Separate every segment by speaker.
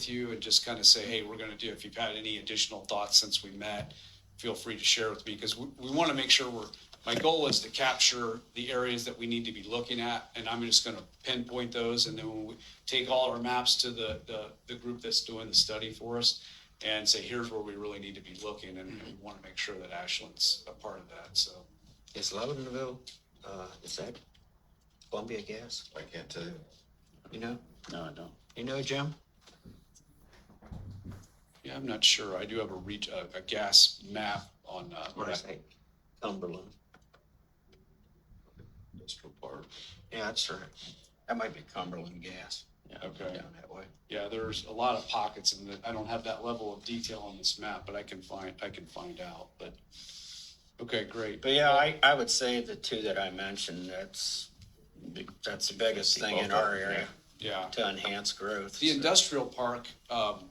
Speaker 1: with you and just kind of say, hey, we're going to do, if you've had any additional thoughts since we met, feel free to share with me because we, we want to make sure we're, my goal is to capture the areas that we need to be looking at. And I'm just going to pinpoint those. And then when we take all our maps to the, the, the group that's doing the study for us and say, here's where we really need to be looking. And and we want to make sure that Ashland's a part of that. So
Speaker 2: Is Loudonville, uh, is that Columbia Gas?
Speaker 3: I can't tell you.
Speaker 2: You know,
Speaker 4: No, I don't.
Speaker 2: you know, Jim?
Speaker 1: yeah, I'm not sure. I do have a reach, a, a gas map on, uh,
Speaker 2: What is that? Cumberland.
Speaker 3: Industrial park.
Speaker 2: Yeah, that's right. That might be Cumberland Gas
Speaker 1: Okay.
Speaker 2: down that way.
Speaker 1: Yeah, there's a lot of pockets and I don't have that level of detail on this map, but I can find, I can find out, but. Okay, great.
Speaker 2: But yeah, I, I would say the two that I mentioned, that's, big- that's the biggest thing in our area
Speaker 1: Yeah.
Speaker 2: to enhance growth.
Speaker 1: The industrial park, um,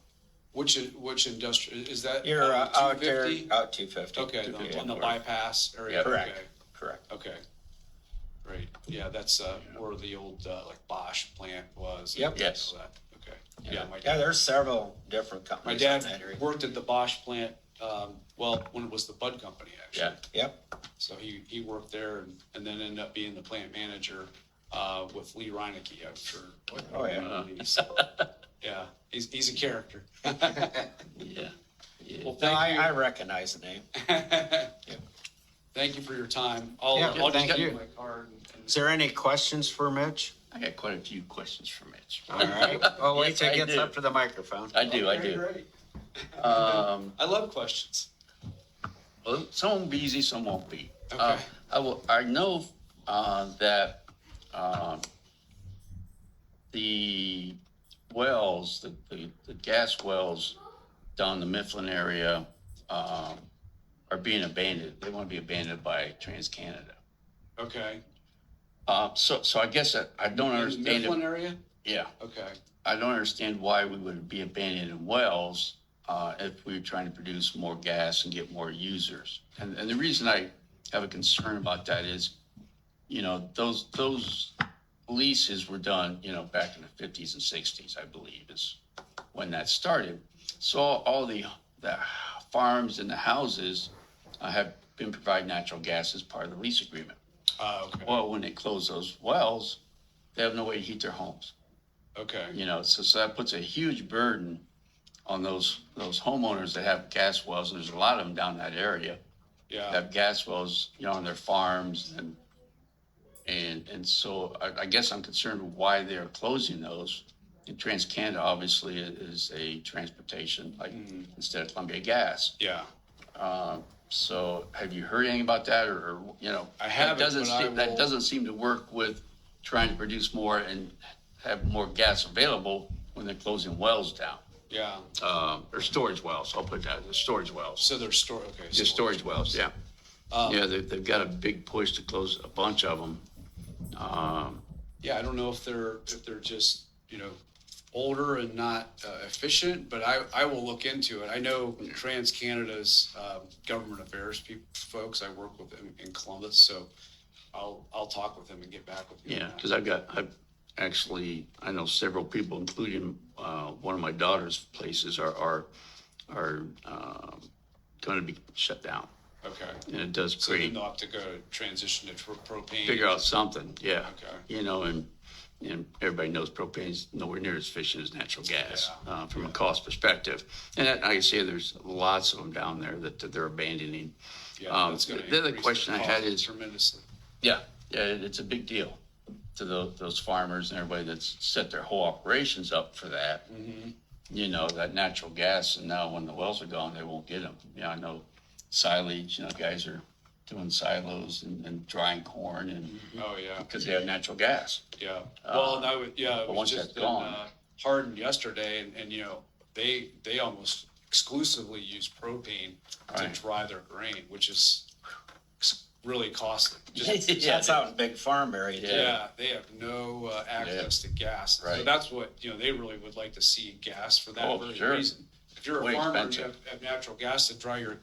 Speaker 1: which, i- which industrial, is that?
Speaker 2: You're
Speaker 1: uh,
Speaker 2: uh, out there,
Speaker 1: 250?
Speaker 2: out two fifty.
Speaker 1: Okay, on- on the bypass area.
Speaker 3: Yeah.
Speaker 2: Correct.
Speaker 1: okay,
Speaker 2: Correct.
Speaker 1: Okay. Great. Yeah, that's, uh, where the old, uh, like Bosch plant was. and
Speaker 2: Yep.
Speaker 4: Yes.
Speaker 1: all that. Okay. Yeah, my
Speaker 2: Yeah,
Speaker 1: dad,
Speaker 2: there's several different
Speaker 1: my
Speaker 2: companies in that area.
Speaker 1: dad worked at the Bosch plant, um, well, when it was the Bud Company, actually.
Speaker 4: Yeah.
Speaker 2: Yep,
Speaker 1: So he, he worked there and, and then ended up being the plant manager, uh, with Lee Reinecke, I'm sure.
Speaker 2: Oh, yeah.
Speaker 1: So, Yeah, he's, he's a character.
Speaker 4: Yeah. Yeah.
Speaker 1: Well,
Speaker 2: no, I, I
Speaker 1: thank
Speaker 2: recognize the name.
Speaker 1: you. Thank you for your time. I'll,
Speaker 2: Yeah,
Speaker 1: I'll just
Speaker 2: thank
Speaker 1: get
Speaker 2: you.
Speaker 1: my card and- and.
Speaker 2: Is there any questions for Mitch?
Speaker 4: I got quite a few questions for Mitch.
Speaker 2: All right, well, wait
Speaker 4: Yes,
Speaker 2: till
Speaker 4: I
Speaker 2: he gets
Speaker 4: do.
Speaker 2: up to the microphone.
Speaker 4: I do, I
Speaker 1: Okay,
Speaker 4: do.
Speaker 1: great.
Speaker 4: Um,
Speaker 1: I love questions.
Speaker 4: well, some will be easy, some won't be. Uh,
Speaker 1: Okay.
Speaker 4: I will, I know, uh, that, um, the wells, the, the, the gas wells down the Mifflin area, um, are being abandoned. They want to be abandoned by TransCanada.
Speaker 1: Okay.
Speaker 4: Uh, so, so I guess I, I don't
Speaker 1: In the
Speaker 4: understand.
Speaker 1: Mifflin
Speaker 4: it.
Speaker 1: area?
Speaker 4: Yeah.
Speaker 1: Okay.
Speaker 4: I don't understand why we would be abandoning wells uh, if we were trying to produce more gas and get more users. And, and the reason I have a concern about that is, you know, those, those leases were done, you know, back in the fifties and sixties, I believe, is when that started. So all the, the farms and the houses uh, have been providing natural gas as part of the lease agreement.
Speaker 1: Uh, okay.
Speaker 4: Well, when they close those wells, they have no way to heat their homes
Speaker 1: Okay.
Speaker 4: you know, so, so that puts a huge burden on those, those homeowners that have gas wells, and there's a lot of them down that area, that
Speaker 1: Yeah.
Speaker 4: have gas wells, you know, on their farms and, and, and so I, I guess I'm concerned why they're closing those. And TransCanada obviously is a transportation, like, instead of Columbia Gas.
Speaker 1: Yeah.
Speaker 4: Uh, so have you heard anything about that or, or, you know?
Speaker 1: I
Speaker 4: that
Speaker 1: haven't,
Speaker 4: doesn't
Speaker 1: but I
Speaker 4: seem- That
Speaker 1: will-
Speaker 4: doesn't seem to work with trying to produce more and have more gas available when they're closing wells down.
Speaker 1: Yeah.
Speaker 4: Um, or storage wells, I'll put that, the storage wells,
Speaker 1: So there's store, okay. so-
Speaker 4: the storage wells, yeah.
Speaker 1: Um,
Speaker 4: Yeah, they've, they've got a big push to close a bunch of them. Um,
Speaker 1: Yeah, I don't know if they're, if they're just, you know, older and not uh, efficient, but I, I will look into it. I know Trans Canada's um, government affairs peop folks, I work with them in Columbus, so I'll, I'll talk with them and get back with you. on
Speaker 4: yeah,
Speaker 1: that.
Speaker 4: cause I've got, I've actually, I know several people, including, uh, one of my daughter's places are, are, are, um, gonna be shut down.
Speaker 1: Okay,
Speaker 4: And it does
Speaker 1: so then
Speaker 4: create,
Speaker 1: they'll have to go transition to tr- propane.
Speaker 4: figure out something, yeah.
Speaker 1: Okay.
Speaker 4: You know, and, and everybody knows propane's nowhere near as efficient as natural gas, uh, from a cost perspective. And that- I can see there's lots of them down there that, that they're abandoning.
Speaker 1: Yeah,
Speaker 4: um,
Speaker 1: that's gonna
Speaker 4: the other
Speaker 1: increase their
Speaker 4: question I had
Speaker 1: costs
Speaker 4: is-
Speaker 1: Tremendously.
Speaker 4: Yeah. Yeah, it- it's a big deal to those, those farmers and everybody that's set their whole operations up for that.
Speaker 1: Mm-hmm.
Speaker 4: You know, that natural gas, and now when the wells are gone, they won't get them. You know, I know silage, you know, guys are doing silos and, and drying corn and,
Speaker 1: Oh, yeah.
Speaker 4: because they have natural gas.
Speaker 1: Yeah, well, and I was, yeah, it
Speaker 4: Uh, but
Speaker 1: was
Speaker 4: once
Speaker 1: just
Speaker 4: that's
Speaker 1: in
Speaker 4: gone-
Speaker 1: uh, Hardin yesterday, and, and, you know, they, they almost exclusively use propane to
Speaker 4: Right.
Speaker 1: dry their grain, which is s- really costly. Just,
Speaker 4: Yeah,
Speaker 2: That's out in Big Farm area too.
Speaker 1: yeah, they have no uh, access to gas. So
Speaker 4: Right.
Speaker 1: that's what, you know, they really would like to see gas for that
Speaker 4: Oh,
Speaker 1: very
Speaker 4: sure.
Speaker 1: reason. If you're a
Speaker 4: Way
Speaker 1: farmer and you have,
Speaker 4: expensive.
Speaker 1: have natural gas to dry your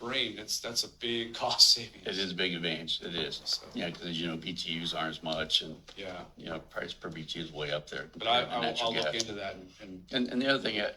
Speaker 1: brain, it's, that's a big cost
Speaker 4: It
Speaker 1: savings.
Speaker 4: is a big advantage, it is.
Speaker 1: So,
Speaker 4: Yeah, because you know, BTUs aren't as much and,
Speaker 1: yeah,
Speaker 4: you know, price per BTU is way up there.
Speaker 1: but I,
Speaker 4: compared to
Speaker 1: I'll,
Speaker 4: natural
Speaker 1: I'll look
Speaker 4: gas.
Speaker 1: into that and- and
Speaker 4: And, and the other thing, uh,